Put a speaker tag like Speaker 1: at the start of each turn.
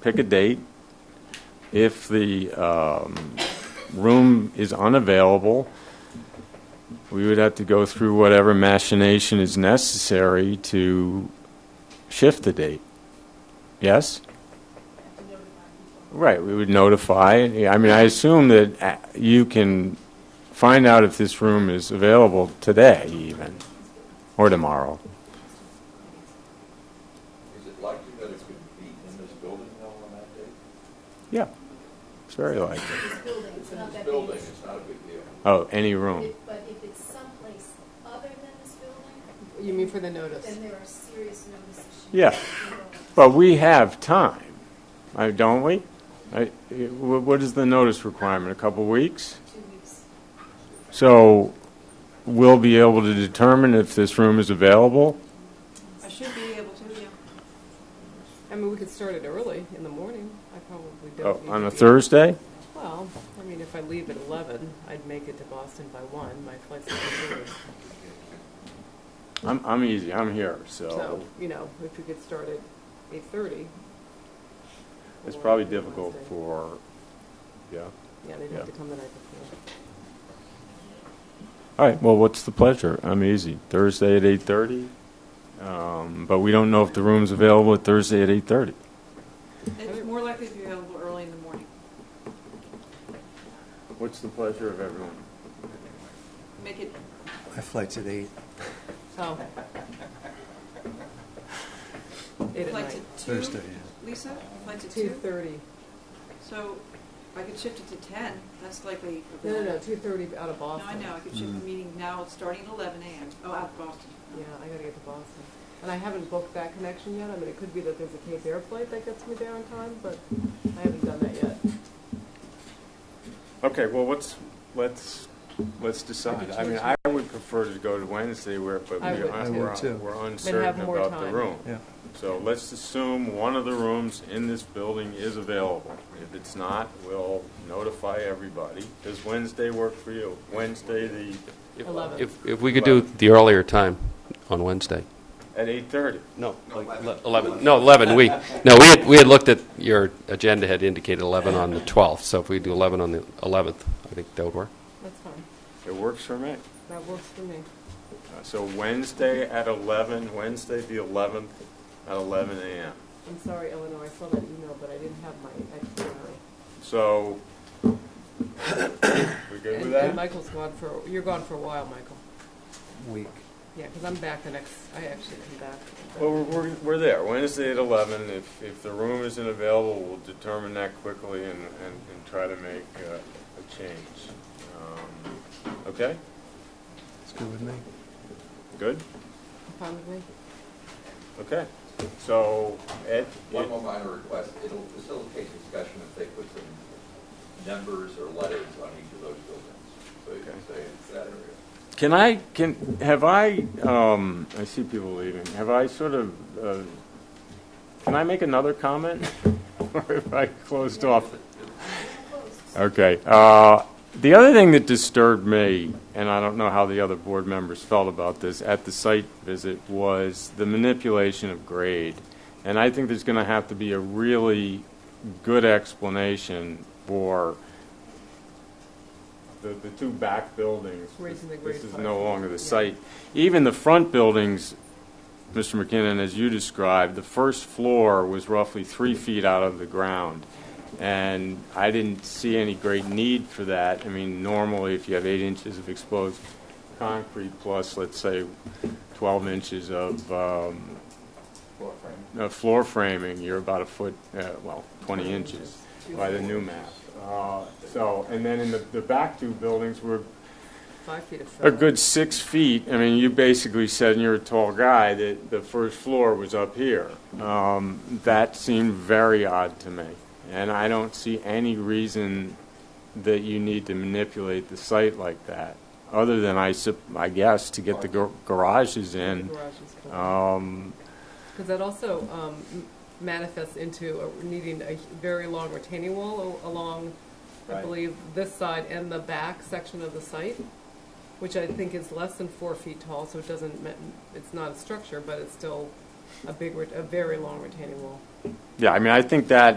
Speaker 1: pick a date. If the um, room is unavailable, we would have to go through whatever machination is necessary to shift the date. Yes? Right, we would notify. Yeah, I mean, I assume that uh, you can find out if this room is available today even, or tomorrow.
Speaker 2: Is it likely that it could be in this building though on that day?
Speaker 1: Yeah, it's very likely.
Speaker 3: This building, it's not
Speaker 2: This
Speaker 3: that big.
Speaker 2: building, it's not a big deal.
Speaker 1: Oh, any room.
Speaker 3: If- But if it's someplace other than this building,
Speaker 4: You mean for the notice?
Speaker 3: then there are serious notice issues.
Speaker 1: Yeah. But we have time, uh, don't we? I- it- wh- What is the notice requirement, a couple weeks?
Speaker 3: Two weeks.
Speaker 1: So we'll be able to determine if this room is available?
Speaker 5: I should be able to, yeah.
Speaker 4: I mean, we could start it early in the morning. I probably
Speaker 1: Oh,
Speaker 4: don't. need
Speaker 1: On
Speaker 4: to
Speaker 1: a
Speaker 4: be-
Speaker 1: Thursday?
Speaker 4: Well, I mean, if I leave at 11, I'd make it to Boston by 1. My flight's at 2:30.
Speaker 1: I'm, I'm easy, I'm here, so
Speaker 4: So, you know, if you could start at 8:30.
Speaker 1: it's
Speaker 4: or
Speaker 1: probably
Speaker 4: Wednesday.
Speaker 1: difficult for, yeah.
Speaker 4: Yeah, they'd
Speaker 1: yeah.
Speaker 4: have to come the night before.
Speaker 1: All right, well, what's the pleasure? I'm easy. Thursday at 8:30? Um, But we don't know if the room's available at Thursday at 8:30.
Speaker 5: It's more likely to be available early in the morning.
Speaker 1: What's the pleasure of everyone?
Speaker 5: Make it,
Speaker 6: My flight's at eight.
Speaker 4: Oh. Eight at
Speaker 5: flight
Speaker 4: night.
Speaker 5: to two?
Speaker 6: Thursday,
Speaker 5: Lisa, flight to two?
Speaker 4: 2:30.
Speaker 5: So I could shift it to ten, that's likely.
Speaker 4: No, no, no,
Speaker 5: available.
Speaker 4: 2:30 out of
Speaker 5: No,
Speaker 4: Boston.
Speaker 5: I know, I could shift the meeting now, starting at eleven AM, oh, out of Boston.
Speaker 4: Yeah, I gotta get to Boston. And I haven't booked that connection yet. I mean, it could be that there's a Cape Air flight that gets me there on time, but I haven't done that yet.
Speaker 1: Okay, well, let's, let's, let's decide. I mean, I would prefer to go to Wednesday where, but
Speaker 4: I
Speaker 1: we-
Speaker 4: would
Speaker 1: I-
Speaker 4: too.
Speaker 6: I would
Speaker 1: we're
Speaker 6: too.
Speaker 1: we're
Speaker 4: have
Speaker 1: uncertain
Speaker 4: more
Speaker 1: about the
Speaker 4: time.
Speaker 1: room.
Speaker 6: yeah.
Speaker 1: So let's assume one of the rooms in this building is available. If it's not, we'll notify everybody. Does Wednesday work for you? Wednesday, the,
Speaker 7: If-
Speaker 4: 11.
Speaker 7: If, if we could do the earlier time on Wednesday.
Speaker 1: at 8:30?
Speaker 7: No, like 11, no, 11, we, no, we had, we had looked at, your agenda had indicated 11 on the 12th, so if we do 11 on the 11th, I think that would work.
Speaker 4: That's fine.
Speaker 1: It works for me.
Speaker 4: That works for me.
Speaker 1: Uh, So Wednesday at 11, Wednesday the 11th at 11 a.m.
Speaker 4: I'm sorry, Eleanor, I saw that email, but I didn't have my itinerary.
Speaker 1: So, we good with
Speaker 4: And-
Speaker 1: that?
Speaker 4: And Michael's gone for, you're gone for a while, Michael.
Speaker 6: Week.
Speaker 4: Yeah, because I'm back the next, I actually come back.
Speaker 1: Well, we're, we're, we're there, Wednesday at eleven, if, if the room isn't available, we'll determine that quickly and, and, and try to make uh, a change. Um, Okay,
Speaker 6: It's good with me.
Speaker 1: good,
Speaker 4: Fine with me?
Speaker 1: okay, so, Ed?
Speaker 2: One more minor request, it'll facilitate discussion if they put some numbers or letters on each of those buildings. So you can say it's that area.
Speaker 1: Can I, can, have I, um, I see people leaving, have I sort of, uh, can I make another comment? Or if I closed off? Okay. uh, The other thing that disturbed me, and I don't know how the other board members felt about this, at the site visit, was the manipulation of grade. And I think there's going to have to be a really good explanation for the, the two back buildings.
Speaker 4: Raising the grade
Speaker 1: This is
Speaker 4: five
Speaker 1: no
Speaker 4: feet,
Speaker 1: longer the
Speaker 4: yeah.
Speaker 1: site. Even the front buildings, Mr. McKinnon, as you described, the first floor was roughly three feet out of the ground. And I didn't see any great need for that. I mean, normally, if you have eight inches of exposed concrete plus, let's say, 12 inches of um, uh, floor framing, you're about a foot, uh, well, 20 inches by the new map. Uh, So, and then in the, the back two buildings were
Speaker 4: Five feet of fill.
Speaker 1: a good six feet. I mean, you basically said, and you're a tall guy, that the first floor was up here. Um, That seemed very odd to me. And I don't see any reason that you need to manipulate the site like that, other than, I sup- I guess, to get the gar- garages in.
Speaker 4: Garage is full.
Speaker 1: Um,
Speaker 4: Because that also um, m- manifests into a- needing a h- very long retaining wall a- along, I
Speaker 1: Right.
Speaker 4: believe, this side and the back section of the site, which I think is less than four feet tall, so it doesn't, ma- it's not a structure, but it's still a big, ret- a very long retaining wall.
Speaker 1: Yeah, I mean, I think that